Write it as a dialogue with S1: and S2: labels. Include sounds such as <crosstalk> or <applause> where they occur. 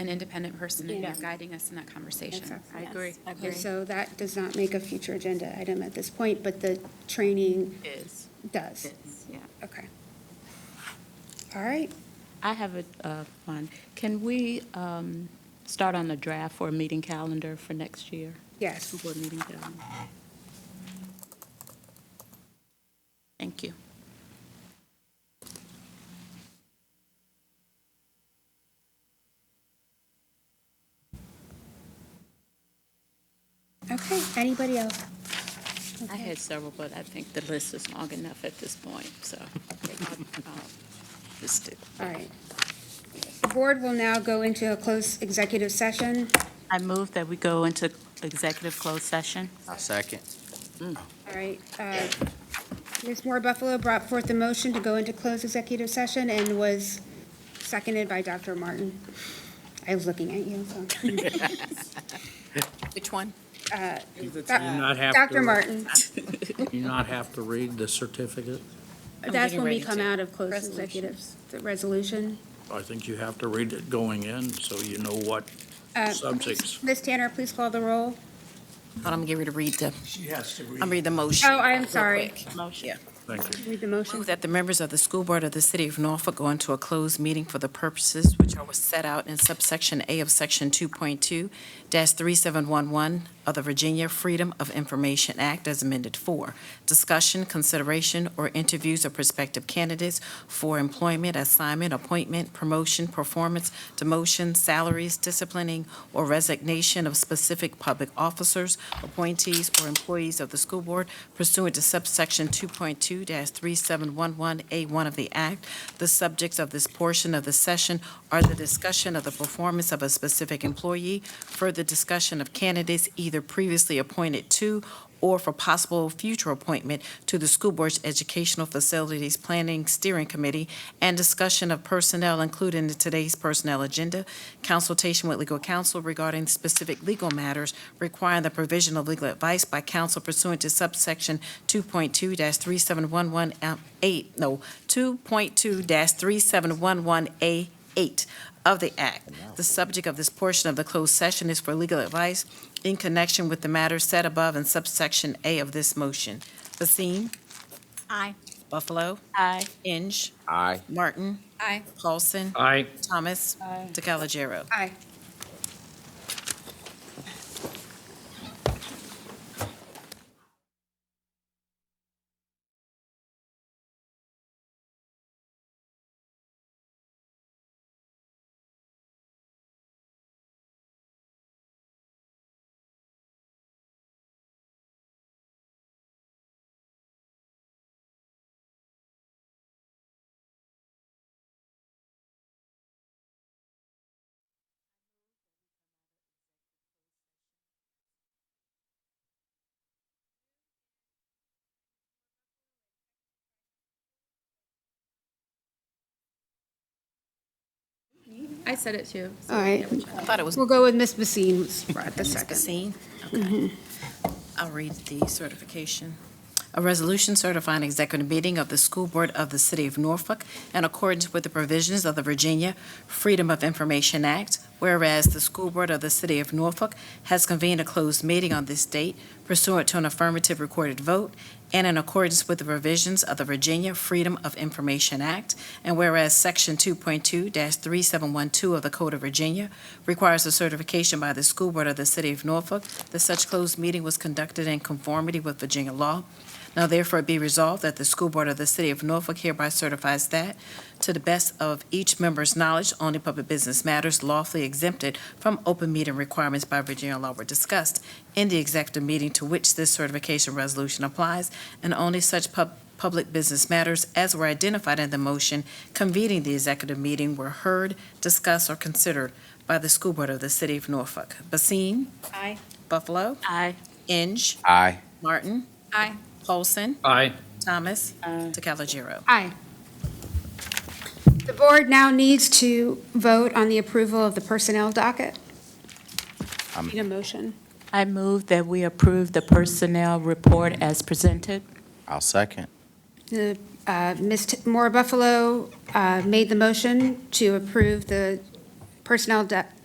S1: an independent person and you're
S2: Yeah.
S1: guiding us in that conversation.
S2: I agree. I
S3: And so that does not make a future agenda item at this point, but the training
S2: Is.
S3: does.
S4: Yeah.
S3: Okay. All right.
S5: I have a uh, one. Can we um, start on the draft for a meeting calendar for next year?
S3: Yes.
S5: Board meeting calendar. Thank you.
S3: Okay. Anybody else?
S5: I had several, but I think the list is long enough at this point, so. I think I'll, uh, Just do.
S3: All right. The board will now go into a close executive session.
S5: I move that we go into executive closed session.
S6: I'll second.
S3: All right. uh, Ms. Moore Buffalo brought forth the motion to go into closed executive session and was seconded by Dr. Martin. I was looking at you, so.
S7: <laughs>
S2: Which <laughs> one?
S7: not have to-
S3: Dr. Martin,
S7: You not have to read the certificate?
S3: that's
S2: getting
S3: when we
S2: ready
S3: come
S2: to.
S3: out of closed
S2: Resolution.
S3: executives, the resolution.
S7: I think you have to read it going in, so you know what
S3: Uh,
S7: subjects.
S3: Ms. Tanner, please call the roll.
S2: Hold on, I'm getting ready to read the,
S7: She has to
S2: I'm reading the motion.
S3: Oh, I am
S2: real
S3: sorry.
S2: quick.
S5: Motion.
S2: Yeah.
S7: Thank you.
S3: Read the
S2: Move
S3: motion.
S2: that the members of the school board of the city of Norfolk go into a closed meeting for the purposes which are set out in subsection A of section 2.2-3711 of the Virginia Freedom of Information Act as amended for discussion, consideration, or interviews of prospective candidates for employment, assignment, appointment, promotion, performance, demotion, salaries, disciplining, or resignation of specific public officers, appointees, or employees of the school board pursuant to subsection 2.2-3711A1 of the Act. The subjects of this portion of the session are the discussion of the performance of a specific employee, further discussion of candidates either previously appointed to or for possible future appointment to the school board's Educational Facilities Planning Steering Committee, and discussion of personnel included in today's personnel agenda, consultation with legal counsel regarding specific legal matters requiring the provision of legal advice by counsel pursuant to subsection 2.2-3711A, no, 2.2-3711A8 of the Act. The subject of this portion of the closed session is for legal advice in connection with the matter set above in subsection A of this motion. Basine,
S5: Aye.
S2: Buffalo,
S5: Aye.
S2: Inge,
S6: Aye.
S2: Martin,
S1: Aye.
S2: Paulson,
S7: Aye.
S2: Thomas,
S5: Aye.
S2: DeCalagero.
S3: Aye.
S1: I said it too. so
S3: All right.
S2: I thought it was
S3: We'll go with Ms. Basine, who's brought the second.
S2: Basine. Okay. I'll read the certification. A resolution certifying executive meeting of the School Board of the City of Norfolk in accordance with the provisions of the Virginia Freedom of Information Act, whereas the School Board of the City of Norfolk has convened a closed meeting on this date pursuant to an affirmative recorded vote and in accordance with the provisions of the Virginia Freedom of Information Act, and whereas Section 2.2-3712 of the Code of Virginia requires a certification by the School Board of the City of Norfolk that such closed meeting was conducted in conformity with Virginia law. Now therefore it be resolved that the School Board of the City of Norfolk hereby certifies that, to the best of each member's knowledge, only public business matters lawfully exempted from open meeting requirements by Virginia law were discussed in the executive meeting to which this certification resolution applies, and only such pub- public business matters as were identified in the motion convening the executive meeting were heard, discussed, or considered by the School Board of the City of Norfolk. Basine?
S1: Aye.
S2: Buffalo?
S5: Aye.
S2: Inge?
S6: Aye.
S2: Martin?
S1: Aye.
S2: Paulson?
S7: Aye.
S2: Thomas?
S5: Aye.
S2: DeCalagero.
S3: Aye. The board now needs to vote on the approval of the personnel docket.
S6: Um,
S3: Need a motion.
S5: I move that we approve the personnel report as presented.
S6: I'll second.
S3: The, uh, Ms. T- Moore Buffalo uh, made the motion to approve the personnel do-